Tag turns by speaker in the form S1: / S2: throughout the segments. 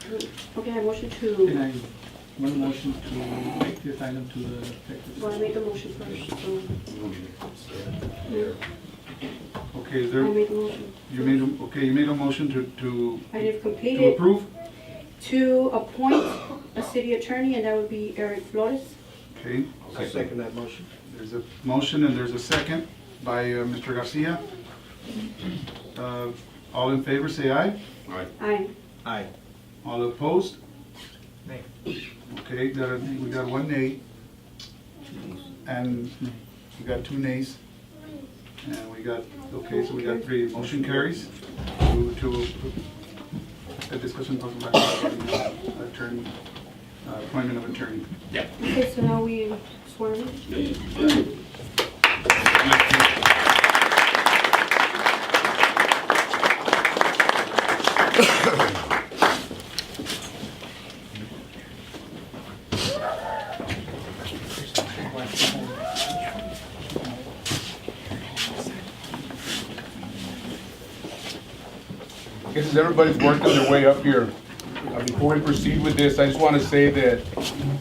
S1: to, okay, I motion
S2: Can
S1: to,
S2: I, one motion to take this item to the executive?
S1: well, I
S2: session?
S1: made the motion first, so.
S3: Okay, is
S1: I
S3: there,
S1: made the motion.
S3: you made, a- okay, you made a motion to, to,
S1: I have
S3: to
S1: completed
S3: approve?
S1: to appoint a city attorney, and that would be Eric Flores.
S3: Okay,
S4: I second that motion.
S3: there's a motion and there's a second by uh, Mr. Garcia. Uh, All in favor, say aye.
S1: Aye.
S4: Aye.
S3: All opposed?
S4: Nay.
S3: Okay, got a- we got one nay. And we got two nays. And we got, okay, so we got three. Motion carries to, to, a discussion possible action regarding attorney, uh, appointment of attorney.
S1: Okay, so now we swear in.
S5: I guess as everybody's working their way up here, uh, before we proceed with this, I just want to say that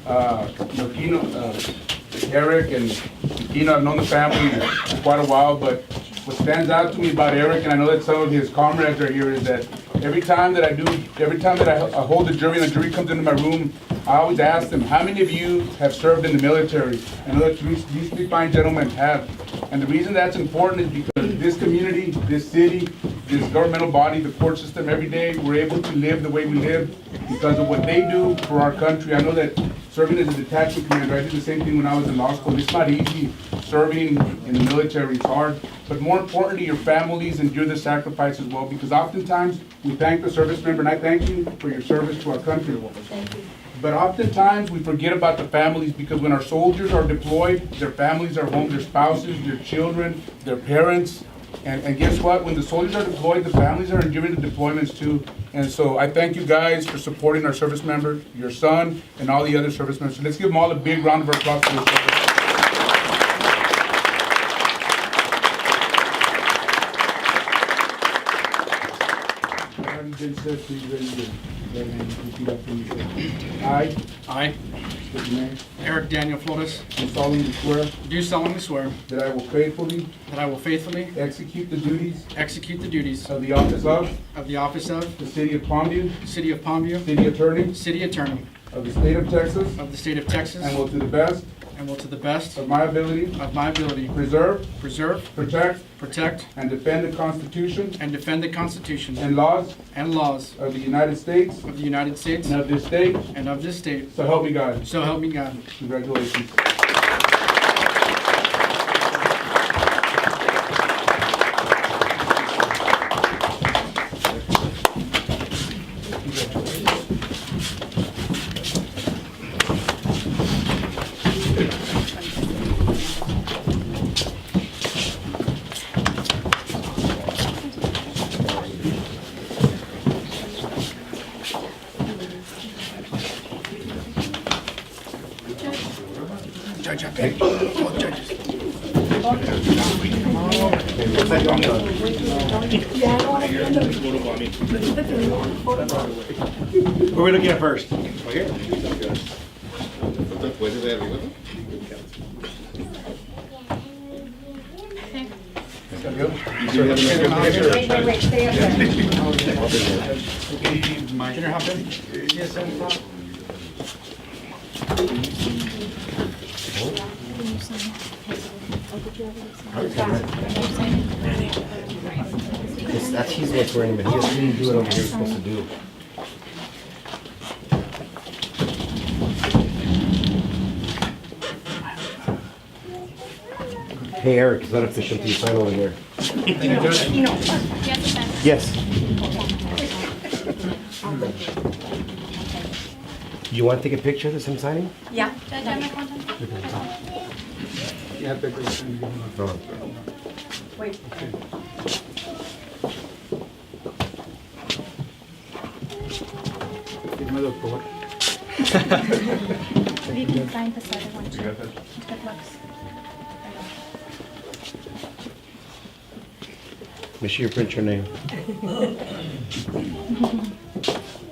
S5: uh, Aquino, uh, Eric and Aquino, I've known the family for quite a while, but what stands out to me about Eric, and I know that some of his comrades are here, is that every time that I do, every time that I I hold the jury, and the jury comes into my room, I always ask them, how many of you have served in the military? I know that these these three fine gentlemen have. And the reason that's important is because this community, this city, this governmental body, the court system, every day, we're able to live the way we live because of what they do for our country. I know that serving as a detachment commander, I did the same thing when I was in law school. It's not easy serving in the military, it's hard. But more importantly, your families endure the sacrifice as well because oftentimes we thank the service member, and I thank you for your service to our country. But oftentimes, we forget about the families because when our soldiers are deployed, their families are home, their spouses, their children, their parents. And, and guess what? When the soldiers are deployed, the families are enduring the deployments too. And so I thank you guys for supporting our service members, your son, and all the other service members. So let's give them all a big round of applause for their service. Already been said, please raise your right hand and repeat after me. I,
S6: I,
S5: state your name,
S6: Eric Daniel Flores,
S5: do solemnly swear
S6: do solemnly swear
S5: that I will faithfully
S6: that I will faithfully
S5: execute the duties
S6: execute the duties
S5: of the office of
S6: of the office of
S5: the City of Palmview
S6: City of Palmview,
S5: City Attorney
S6: City Attorney
S5: of the State of Texas,
S6: of the State of Texas,
S5: and will to the best
S6: and will to the best
S5: of my ability
S6: of my ability
S5: preserve,
S6: preserve,
S5: protect,
S6: protect,
S5: and defend the Constitution
S6: and defend the Constitution
S5: and laws
S6: and laws
S5: of the United States
S6: of the United States
S5: and of this state,
S6: and of this state.
S5: so help me God.
S6: So help me God.
S5: Congratulations.
S4: Who are we looking at first?
S7: Wait, wait, wait, stay up there.
S6: Junior Hopkins? Yes, sir.
S8: Because that's he's what's worrying him. He just didn't do what over here was supposed to do. Hey Eric, is that official? Do you sign over there? Yes. You want to take a picture of this, him signing?
S7: Yeah.
S8: No.
S7: Wait.
S9: We can find this other one too. It looks.
S8: Make sure you print your name.